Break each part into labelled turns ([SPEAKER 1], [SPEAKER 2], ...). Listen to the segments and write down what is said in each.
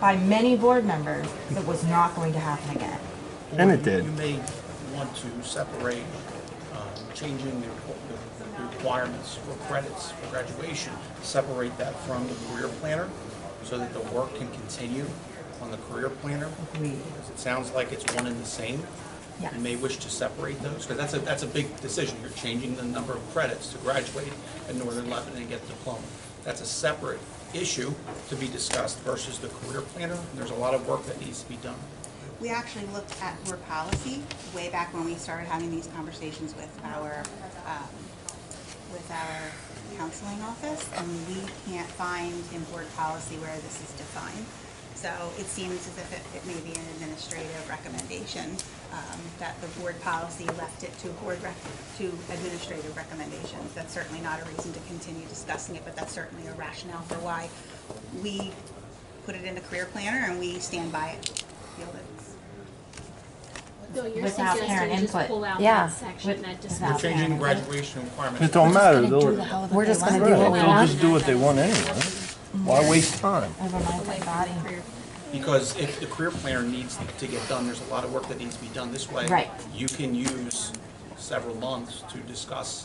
[SPEAKER 1] by many board members that was not going to happen again.
[SPEAKER 2] And it
[SPEAKER 3] You-
[SPEAKER 2] did.
[SPEAKER 3] You may want to separate um, changing the requ- the requirements for credits for graduation, separate that from the career planner so that the work can continue on the career planner.
[SPEAKER 1] Agreed.
[SPEAKER 3] Because it sounds like it's one and the same.
[SPEAKER 1] Yes.
[SPEAKER 3] You may wish to separate those, because that's a, that's a big decision. You're changing the number of credits to graduate in Northern Lebanon and get a diploma. That's a separate issue to be discussed versus the career planner. There's a lot of work that needs to be done.
[SPEAKER 4] We actually looked at your policy way back when we started having these conversations with our, um, with our counseling office, and we can't find in board policy where this is defined. So it seems as if it, it may be an administrative recommendation, um, that the board policy left it to board rec, to administrative recommendations. That's certainly not a reason to continue discussing it, but that's certainly a rationale for why we put it in the career planner and we stand by it. Feel that it's-
[SPEAKER 5] No, you're
[SPEAKER 1] Without
[SPEAKER 5] suggesting
[SPEAKER 1] parent
[SPEAKER 5] just
[SPEAKER 1] input.
[SPEAKER 5] pull out
[SPEAKER 6] Yeah.
[SPEAKER 5] that section
[SPEAKER 1] With-
[SPEAKER 5] that
[SPEAKER 3] We're
[SPEAKER 1] without
[SPEAKER 5] discusses.
[SPEAKER 3] changing
[SPEAKER 1] parent.
[SPEAKER 3] graduation requirements.
[SPEAKER 2] It don't matter, they'll,
[SPEAKER 6] We're just gonna do
[SPEAKER 2] Right,
[SPEAKER 6] what we
[SPEAKER 2] they'll
[SPEAKER 6] want.
[SPEAKER 2] just do what they want anyway. Why waste time?
[SPEAKER 1] Over my body.
[SPEAKER 3] Because if the career planner needs to get done, there's a lot of work that needs to be done this way.
[SPEAKER 1] Right.
[SPEAKER 3] You can use several months to discuss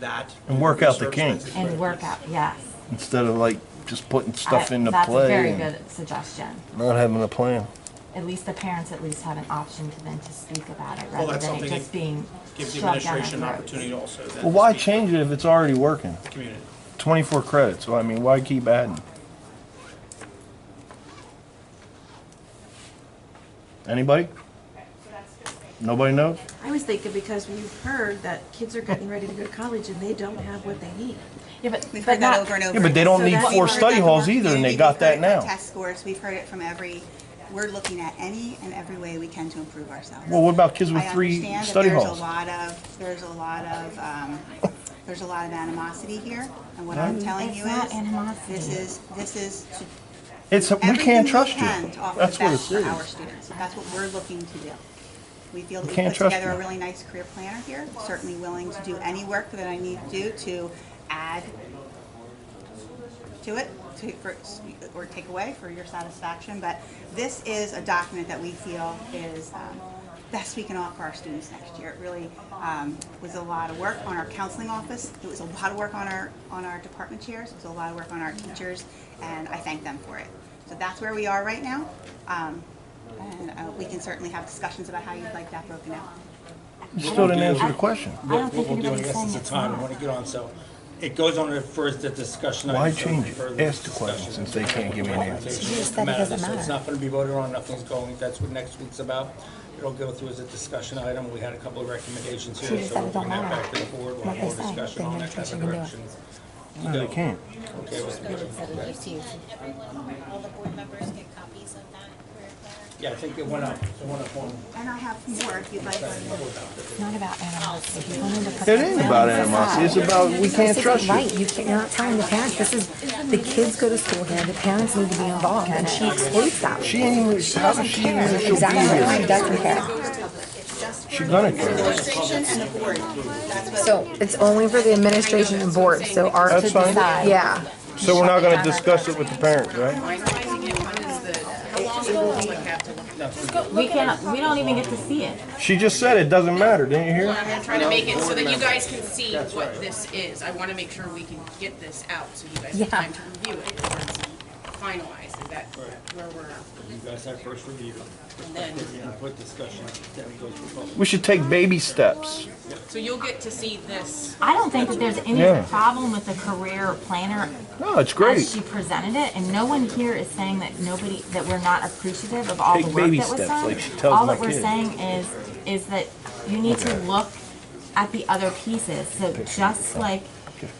[SPEAKER 3] that.
[SPEAKER 2] And work out the
[SPEAKER 3] Service
[SPEAKER 2] kinks.
[SPEAKER 3] plans.
[SPEAKER 1] And workout, yes.
[SPEAKER 2] Instead of like just putting stuff
[SPEAKER 1] I-
[SPEAKER 2] into
[SPEAKER 1] That's a
[SPEAKER 2] play
[SPEAKER 1] very
[SPEAKER 2] and
[SPEAKER 1] good suggestion.
[SPEAKER 2] not having a plan.
[SPEAKER 1] At least the parents at least have an option to then to speak about it rather
[SPEAKER 3] that's
[SPEAKER 1] than it
[SPEAKER 3] something
[SPEAKER 1] just
[SPEAKER 3] that
[SPEAKER 1] being shoved
[SPEAKER 3] Give the
[SPEAKER 1] down our
[SPEAKER 3] administration an
[SPEAKER 1] throats.
[SPEAKER 3] opportunity also then.
[SPEAKER 2] Well, why
[SPEAKER 3] to speak
[SPEAKER 2] change it if it's already working?
[SPEAKER 3] to the Community.
[SPEAKER 2] Twenty-four credits, well, I mean, why keep adding? Anybody? Nobody knows?
[SPEAKER 7] I was thinking because we've heard that kids are getting ready to go to college and they don't have what they need.
[SPEAKER 1] Yeah, but,
[SPEAKER 4] We've
[SPEAKER 1] but
[SPEAKER 4] heard that
[SPEAKER 1] not,
[SPEAKER 4] over and over.
[SPEAKER 2] Yeah, but they don't
[SPEAKER 7] So
[SPEAKER 2] need
[SPEAKER 7] that's
[SPEAKER 2] four
[SPEAKER 7] why we're
[SPEAKER 2] study
[SPEAKER 4] We've heard that from
[SPEAKER 2] halls
[SPEAKER 4] our
[SPEAKER 2] either, and they got
[SPEAKER 4] community. We've heard
[SPEAKER 2] that
[SPEAKER 4] it from
[SPEAKER 2] now.
[SPEAKER 4] Test scores, we've heard it from every, we're looking at any and every way we can to improve ourselves.
[SPEAKER 2] Well, what about kids with
[SPEAKER 4] I
[SPEAKER 2] three
[SPEAKER 4] understand that
[SPEAKER 2] study
[SPEAKER 4] there's a
[SPEAKER 2] halls?
[SPEAKER 4] lot of, there's a lot of, um, there's a lot of animosity here, and what I'm telling you
[SPEAKER 1] It's not
[SPEAKER 4] is,
[SPEAKER 1] animosity.
[SPEAKER 4] this is, this is to
[SPEAKER 2] It's, we
[SPEAKER 4] everything
[SPEAKER 2] can't
[SPEAKER 4] we
[SPEAKER 2] trust you.
[SPEAKER 4] can to offer the
[SPEAKER 2] That's what it
[SPEAKER 4] best for our
[SPEAKER 2] is.
[SPEAKER 4] students. That's what we're looking to do. We feel that we
[SPEAKER 2] can't
[SPEAKER 4] put
[SPEAKER 2] trust
[SPEAKER 4] together
[SPEAKER 2] you.
[SPEAKER 4] a really nice career planner here, certainly willing to do any work that I need to do to add to it, to, for, or take away for your satisfaction, but this is a document that we feel is, um, best we can offer our students next year. It really, um, was a lot of work on our counseling office, it was a lot of work on our, on our department chairs, it was a lot of work on our teachers, and I thank them for it. So that's where we are right now, um, and, uh, we can certainly have discussions about how you'd like that broken out.
[SPEAKER 2] You still didn't answer the question.
[SPEAKER 1] I don't
[SPEAKER 8] What
[SPEAKER 1] think
[SPEAKER 8] we'll do, I
[SPEAKER 1] anybody's
[SPEAKER 8] guess,
[SPEAKER 1] saying
[SPEAKER 8] is the
[SPEAKER 1] it's
[SPEAKER 8] time, I
[SPEAKER 1] not.
[SPEAKER 8] want to get on, so it goes on to first the discussion.
[SPEAKER 2] Why
[SPEAKER 8] item, so
[SPEAKER 2] change it?
[SPEAKER 8] further
[SPEAKER 2] Ask the question
[SPEAKER 8] discussion.
[SPEAKER 2] since they can't give me an answer.
[SPEAKER 8] Presentation.
[SPEAKER 6] You just said it doesn't
[SPEAKER 8] So It's
[SPEAKER 6] matter.
[SPEAKER 8] not going to be voted on, nothing's going, that's what next week's about. It'll go through as a discussion item, we had a couple of recommendations
[SPEAKER 6] She
[SPEAKER 8] here,
[SPEAKER 6] just
[SPEAKER 8] so
[SPEAKER 6] said
[SPEAKER 8] we'll
[SPEAKER 6] it don't
[SPEAKER 8] bring that
[SPEAKER 6] matter.
[SPEAKER 8] back to the board, we'll
[SPEAKER 6] What
[SPEAKER 8] have more
[SPEAKER 6] they say,
[SPEAKER 8] discussion
[SPEAKER 6] they
[SPEAKER 8] on
[SPEAKER 6] make
[SPEAKER 8] that
[SPEAKER 6] sure
[SPEAKER 8] type
[SPEAKER 6] she
[SPEAKER 8] of
[SPEAKER 6] can do it.
[SPEAKER 8] direction.
[SPEAKER 2] No, they can't.
[SPEAKER 8] Okay, well,
[SPEAKER 9] Everyone, all the board members get copies of that career planner?
[SPEAKER 8] yeah, I think it went up, it went up one.
[SPEAKER 4] And I have more if you'd like.
[SPEAKER 1] It's not about animosity. You wanted to put
[SPEAKER 2] It
[SPEAKER 1] that
[SPEAKER 2] ain't
[SPEAKER 1] down.
[SPEAKER 2] about animosity, it's about, we can't
[SPEAKER 6] This
[SPEAKER 2] trust you.
[SPEAKER 6] isn't right. You can't, you're not telling the parents. This is, the kids go to school here. The parents need to be involved and she excludes that.
[SPEAKER 2] She ain't even, how does she even, think she'll be
[SPEAKER 6] Exactly. She
[SPEAKER 2] here?
[SPEAKER 6] doesn't care.
[SPEAKER 2] She's gonna care.
[SPEAKER 4] Administration and the board, that's what.
[SPEAKER 6] So it's only for the administration and board, so our.
[SPEAKER 2] That's fine.
[SPEAKER 6] Yeah.
[SPEAKER 2] So we're not gonna discuss it with the parents, right?
[SPEAKER 1] We can't, we don't even get to see it.
[SPEAKER 2] She just said it doesn't matter, didn't you hear?
[SPEAKER 10] I'm gonna try to make it so that you guys can see what this is. I wanna make sure we can get this out so you guys
[SPEAKER 6] Yeah.
[SPEAKER 10] have time to review it before it's finalized. Is that where we're at?
[SPEAKER 8] You guys have first review,
[SPEAKER 10] And then,
[SPEAKER 8] input discussion, then it goes for public.
[SPEAKER 2] We should take baby steps.
[SPEAKER 10] so you'll get to see this.
[SPEAKER 1] I don't think that there's any
[SPEAKER 2] Yeah.
[SPEAKER 1] problem with the career planner
[SPEAKER 2] No, Oh, it's
[SPEAKER 1] as
[SPEAKER 2] great.
[SPEAKER 1] she presented it, and no one here is saying that nobody, that we're not appreciative of all
[SPEAKER 2] Take
[SPEAKER 1] the work
[SPEAKER 2] baby
[SPEAKER 1] that was
[SPEAKER 2] steps,
[SPEAKER 1] done.
[SPEAKER 2] like she tells
[SPEAKER 1] All
[SPEAKER 2] my
[SPEAKER 1] that we're
[SPEAKER 2] kids.
[SPEAKER 1] saying is, is that you need to look at the other pieces, so just like,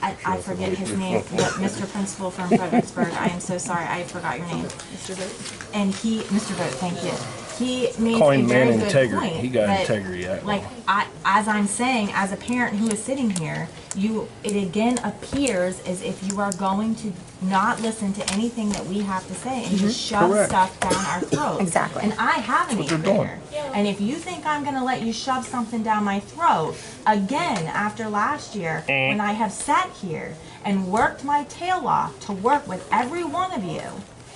[SPEAKER 1] I, I forget his name, but Mr. Principal from Fredericksburg, I am so sorry, I forgot your name. Mr. Vogt. And he, Mr. Vogt, thank you, he made
[SPEAKER 2] Call
[SPEAKER 1] a
[SPEAKER 2] him
[SPEAKER 1] very
[SPEAKER 2] man
[SPEAKER 1] good
[SPEAKER 2] integrity.
[SPEAKER 1] point.
[SPEAKER 2] He got
[SPEAKER 1] that,
[SPEAKER 2] integrity, that
[SPEAKER 1] Like, I, as I'm saying, as a parent who is sitting here, you, it again appears as if you are going to not listen to anything that we have to say and just shove
[SPEAKER 2] Mm-hmm. Correct.
[SPEAKER 1] stuff down our throats.
[SPEAKER 6] Exactly.
[SPEAKER 1] And I have an eighth
[SPEAKER 2] they're doing.
[SPEAKER 1] grader. And if you think I'm gonna let you shove something down my throat, again, after last year, when I have sat here and worked my tail off to work with every one of you,